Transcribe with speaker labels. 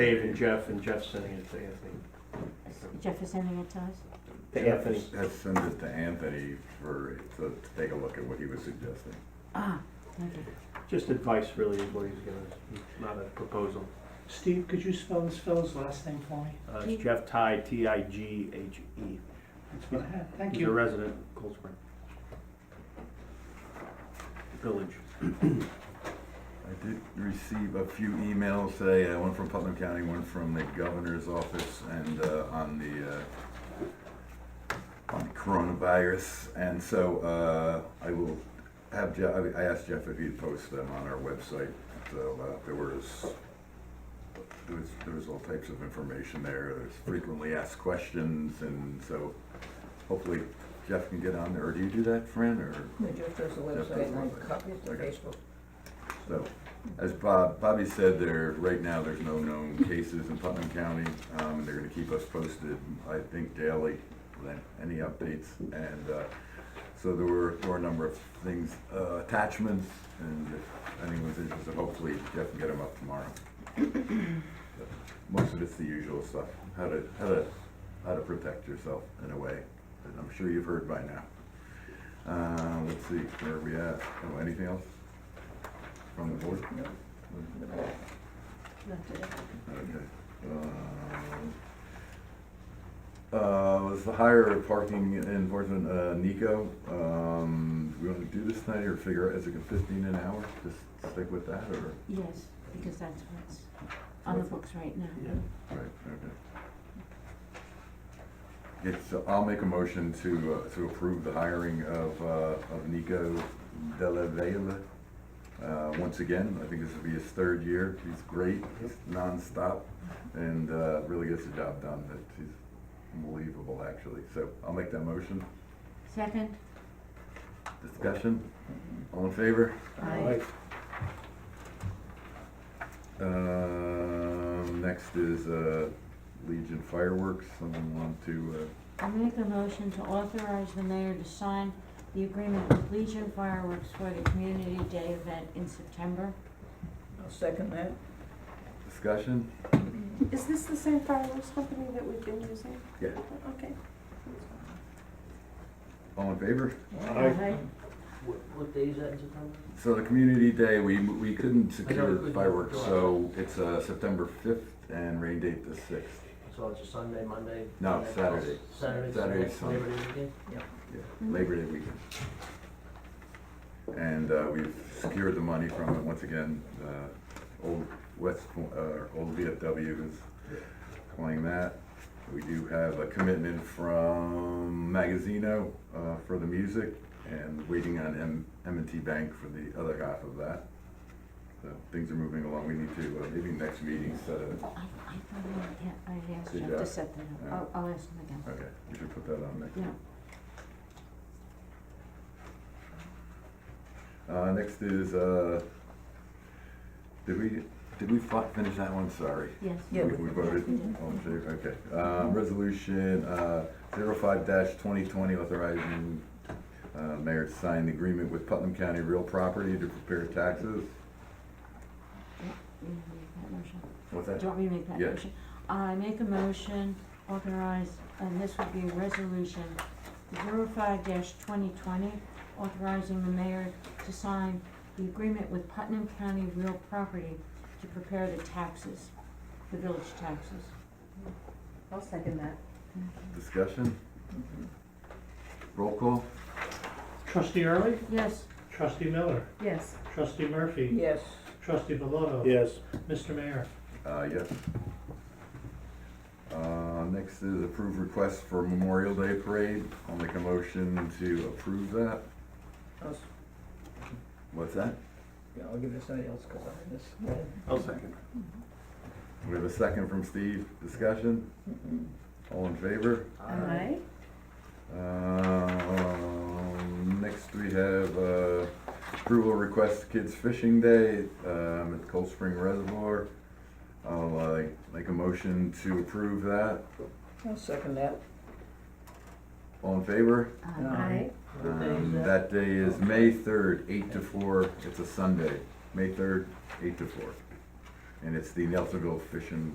Speaker 1: Dave and Jeff, and Jeff sending it to Anthony.
Speaker 2: Jeff is sending it to us?
Speaker 1: To Anthony.
Speaker 3: Let's send it to Anthony for, to to take a look at what he was suggesting.
Speaker 2: Ah, okay.
Speaker 1: Just advice really is what he's giving, not a proposal.
Speaker 4: Steve, could you spell this fellow's last name for me?
Speaker 1: Uh, it's Jeff Ty, T-I-G-H-E.
Speaker 4: That's what I had. Thank
Speaker 1: He's a
Speaker 4: you.
Speaker 1: E. resident of Cold Spring. Village.
Speaker 3: I did receive a few emails today, uh, one from Putnam County, one from the governor's office, and uh, on the, uh, on coronavirus, and so uh, I will have Jeff, I- I asked Jeff if he'd post them on our website, so uh, there was, there was, there was all types of information there, there's frequently asked questions, and so hopefully Jeff can get on there, or do you do that, Fran, or?
Speaker 5: Jeff does the
Speaker 3: does
Speaker 5: website and I
Speaker 3: website.
Speaker 5: copy it to
Speaker 3: Okay.
Speaker 5: Facebook.
Speaker 3: So, as Bob, Bobby said, there, right now, there's no known cases in Putnam County. Um, they're gonna keep us posted, I think daily, with any updates. And, uh, so there were, there were a number of things, uh, attachments, and if anyone's interested, hopefully Jeff can get them up tomorrow. But Most of it's the usual stuff, how to, how to, how to protect yourself in a way that I'm sure you've heard by now. Uh, let's see, where are we at? Oh, anything else from the board?
Speaker 5: No,
Speaker 3: Okay. Um, Uh, was the higher parking enforcement, uh, Nico, um, we wanna do this tonight or figure out, is it fifteen an hour? Just stick with that or?
Speaker 2: Yes, because that's what's on the books right now.
Speaker 1: Yeah.
Speaker 3: Right, okay. Okay, so I'll make a motion to, uh, to approve the hiring of, uh, of Nico Della Vella. Uh, once again, I think this will be his third year, he's great, he's nonstop, and, uh, really gets the job done, that he's unbelievable, actually, so I'll make that motion.
Speaker 2: Second?
Speaker 3: Discussion, all in favor?
Speaker 2: Aye.
Speaker 3: Um, next is, uh, Legion Fireworks, someone want to, uh,
Speaker 2: I make a motion to authorize the mayor to sign the agreement with Legion Fireworks for the Community Day event in September.
Speaker 5: I'll second that.
Speaker 3: Discussion?
Speaker 6: Is this the same fireworks company that we've been using?
Speaker 3: Yeah.
Speaker 6: Okay.
Speaker 3: All in favor?
Speaker 2: Aye.
Speaker 7: What, what day is that in September?
Speaker 3: So the community day, we, we couldn't
Speaker 7: I
Speaker 3: secure
Speaker 7: know, it was-
Speaker 3: fireworks, so it's, uh, September fifth and rain date the sixth.
Speaker 7: So it's a Sunday, Monday?
Speaker 3: No,
Speaker 7: Monday,
Speaker 3: Saturday.
Speaker 7: Saturday,
Speaker 3: Saturday,
Speaker 7: Sunday,
Speaker 3: Sunday.
Speaker 7: Labor Day weekend?
Speaker 3: Labor Day weekend. And uh, we've secured the money from it, once again, uh, Old West, Po- uh, Old VFW is playing that. We do have a commitment from Magazino uh, for the music, and waiting on M- m and t Bank for the other half of that. So things are moving along, we need to, uh, maybe next meeting, set
Speaker 2: I, I
Speaker 3: a,
Speaker 2: thought I had, I asked
Speaker 3: Did
Speaker 2: Jeff
Speaker 3: ya?
Speaker 2: to set that up. I'll, I'll ask him again.
Speaker 3: okay, we should put that on next.
Speaker 2: Yeah.
Speaker 3: Uh, next is, uh, did we, did we fi- finish that one? Sorry.
Speaker 2: Yes.
Speaker 5: Yeah,
Speaker 3: We we voted?
Speaker 2: we did.
Speaker 3: All in favor? Okay. Um, resolution, uh, zero-five dash twenty-twenty authorizing, uh, mayor to sign the agreement with Putnam County Real Property to prepare taxes.
Speaker 2: You want me to make that motion?
Speaker 3: What's
Speaker 2: Do
Speaker 3: that?
Speaker 2: you want me to make that
Speaker 3: Yeah.
Speaker 2: motion? I make a motion, authorize, and this would be resolution 5 twenty twenty, authorizing the mayor to sign the agreement with Putnam County Real Property to prepare the taxes, the village taxes.
Speaker 5: I'll second that.
Speaker 3: Discussion? Roll call?
Speaker 4: Trustee Early,
Speaker 2: Yes,
Speaker 4: trustee Miller,
Speaker 5: Yes.
Speaker 4: trustee Murphy,
Speaker 5: Yes,
Speaker 4: trustee Bellotto.
Speaker 1: Yes.
Speaker 4: Mr. Mayor.
Speaker 3: Uh, yes. Uh, next is approve request for Memorial Day Parade. I'll make a motion to approve that.
Speaker 5: I'll, s-
Speaker 3: What's that?
Speaker 5: yeah, I'll give it to somebody else because I missed.
Speaker 1: I'll second.
Speaker 3: We have a second from Steve. Discussion? All in favor?
Speaker 5: Aye.
Speaker 3: Um, next we have, uh, approval request Kids Fishing Day, um, at Cold Spring Reservoir. I'll, uh, make a motion to approve that.
Speaker 5: I'll second that.
Speaker 3: All in favor?
Speaker 2: uh,
Speaker 7: What day is
Speaker 3: Um, that day is May third, eight to four, it's a Sunday, May third, eight to four. And it's the Nelsonville Fishing